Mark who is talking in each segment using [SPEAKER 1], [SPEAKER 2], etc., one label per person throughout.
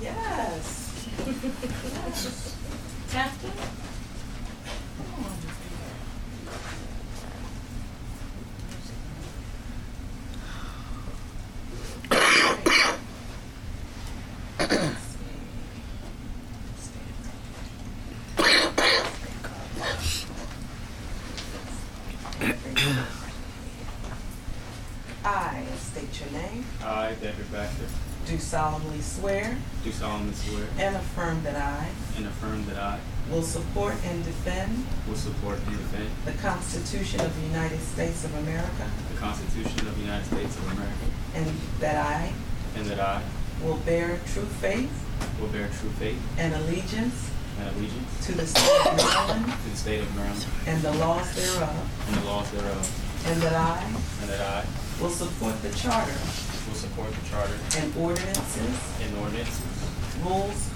[SPEAKER 1] Yes. Taft? I state your name,
[SPEAKER 2] I, David Baxter,
[SPEAKER 1] do solemnly swear
[SPEAKER 2] do solemnly swear
[SPEAKER 1] and affirm that I
[SPEAKER 2] and affirm that I
[SPEAKER 1] will support and defend
[SPEAKER 2] will support and defend
[SPEAKER 1] the Constitution of the United States of America
[SPEAKER 2] the Constitution of the United States of America,
[SPEAKER 1] and that I
[SPEAKER 2] and that I
[SPEAKER 1] will bear true faith
[SPEAKER 2] will bear true faith
[SPEAKER 1] and allegiance
[SPEAKER 2] and allegiance
[SPEAKER 1] to the state of Maryland
[SPEAKER 2] to the state of Maryland
[SPEAKER 1] and the laws thereof,
[SPEAKER 2] and the laws thereof,
[SPEAKER 1] and that I
[SPEAKER 2] and that I
[SPEAKER 1] will support the charter
[SPEAKER 2] will support the charter
[SPEAKER 1] and ordinances,
[SPEAKER 2] and ordinances,
[SPEAKER 1] rules,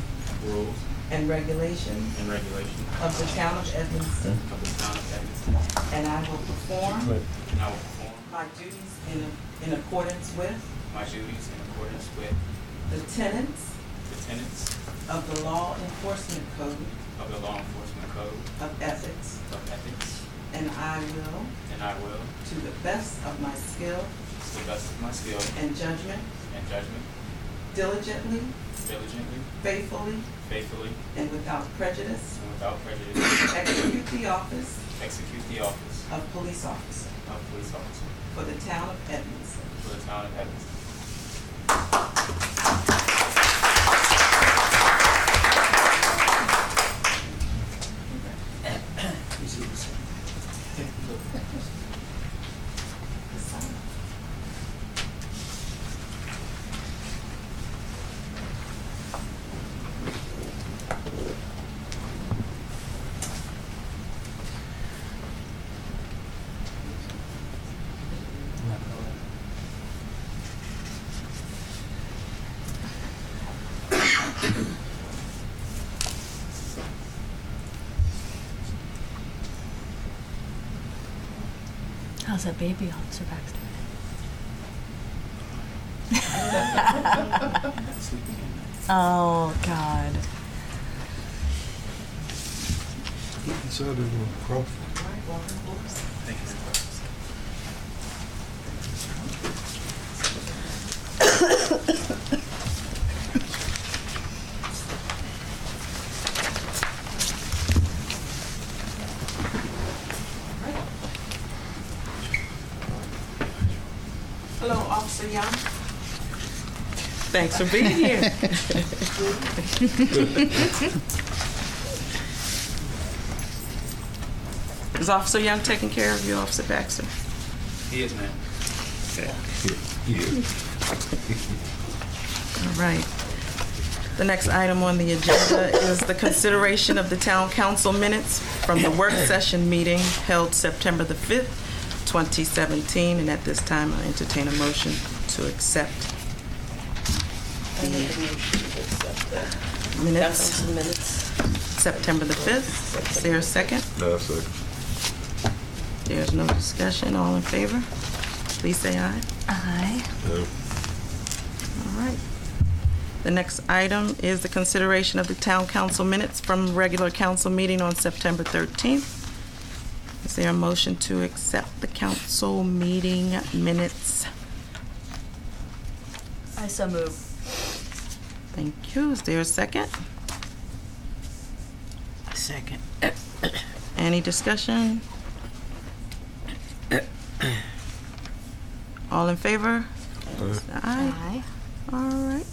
[SPEAKER 2] rules,
[SPEAKER 1] and regulations
[SPEAKER 2] and regulations
[SPEAKER 1] of the town of Evanston,
[SPEAKER 2] of the town of Evanston,
[SPEAKER 1] and I will perform
[SPEAKER 2] and I will perform
[SPEAKER 1] my duties in, in accordance with
[SPEAKER 2] my duties in accordance with
[SPEAKER 1] the tenets
[SPEAKER 2] the tenets
[SPEAKER 1] of the law enforcement code
[SPEAKER 2] of the law enforcement code
[SPEAKER 1] of ethics,
[SPEAKER 2] of ethics,
[SPEAKER 1] and I will,
[SPEAKER 2] and I will,
[SPEAKER 1] to the best of my skill
[SPEAKER 2] to the best of my skill
[SPEAKER 1] and judgment,
[SPEAKER 2] and judgment,
[SPEAKER 1] diligently,
[SPEAKER 2] diligently,
[SPEAKER 1] faithfully,
[SPEAKER 2] faithfully,
[SPEAKER 1] and without prejudice,
[SPEAKER 2] and without prejudice,
[SPEAKER 1] execute the office
[SPEAKER 2] execute the office
[SPEAKER 1] of police officer
[SPEAKER 2] of police officer
[SPEAKER 1] for the town of Edmondson.
[SPEAKER 2] for the town of Evanston.
[SPEAKER 3] How's that baby, Officer Baxter? oh, God.
[SPEAKER 4] Inside of the crop.
[SPEAKER 1] All right, welcome, folks.
[SPEAKER 2] Thank you.
[SPEAKER 1] Hello, Officer Young. Thanks for being here. Is Officer Young taking care of you, Officer Baxter?
[SPEAKER 2] He is, ma'am.
[SPEAKER 1] All right. The next item on the agenda is the consideration of the town council minutes from the work session meeting held September the 5th, 2017, and at this time, I entertain a motion to accept the minutes,
[SPEAKER 5] Council minutes.
[SPEAKER 1] September the 5th. Is there a second?
[SPEAKER 4] No, second.
[SPEAKER 1] There's no discussion. All in favor? Please say aye.
[SPEAKER 3] I.
[SPEAKER 4] No.
[SPEAKER 1] All right. The next item is the consideration of the town council minutes from regular council meeting on September 13th. Is there a motion to accept the council meeting minutes?
[SPEAKER 3] I so move.
[SPEAKER 1] Thank you. Is there a second?
[SPEAKER 5] Second.
[SPEAKER 1] Any discussion? All in favor? Aye. All right.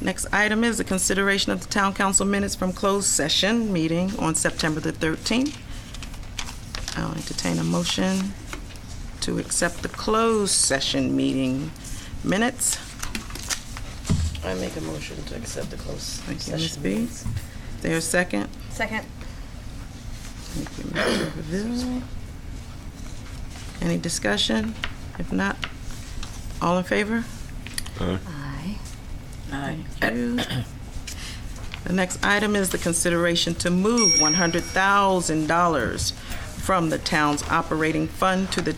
[SPEAKER 1] Next item is the consideration of the town council minutes from closed session meeting on September the 13th. I'll entertain a motion to accept the closed session meeting minutes.
[SPEAKER 5] I make a motion to accept the closed session.
[SPEAKER 1] Thank you, Ms. B.
[SPEAKER 5] minutes.
[SPEAKER 1] There's a second.
[SPEAKER 3] Second.
[SPEAKER 1] Thank you, Mr. Revere. Any discussion? If not, all in favor?
[SPEAKER 3] I.
[SPEAKER 5] Aye.
[SPEAKER 1] Thank you. The next item is the consideration to move $100,000 from the town's operating fund to the